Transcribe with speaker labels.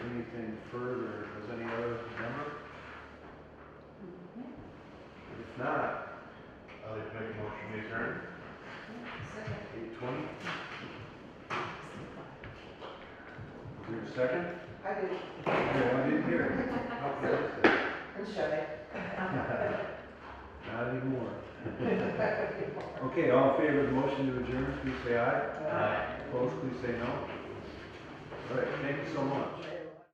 Speaker 1: deferred, or was any other number? If not, I'd like to make a motion to adjourn,
Speaker 2: Second.
Speaker 1: eight twenty. Is there a second?
Speaker 2: I did,
Speaker 1: No, I didn't hear it. Okay, that's it.
Speaker 2: and shut it.
Speaker 1: Not anymore. Okay, all in favor of the motion to adjourn, please say aye.
Speaker 2: Aye.
Speaker 1: Opposed, please say no. All right, thank you so much.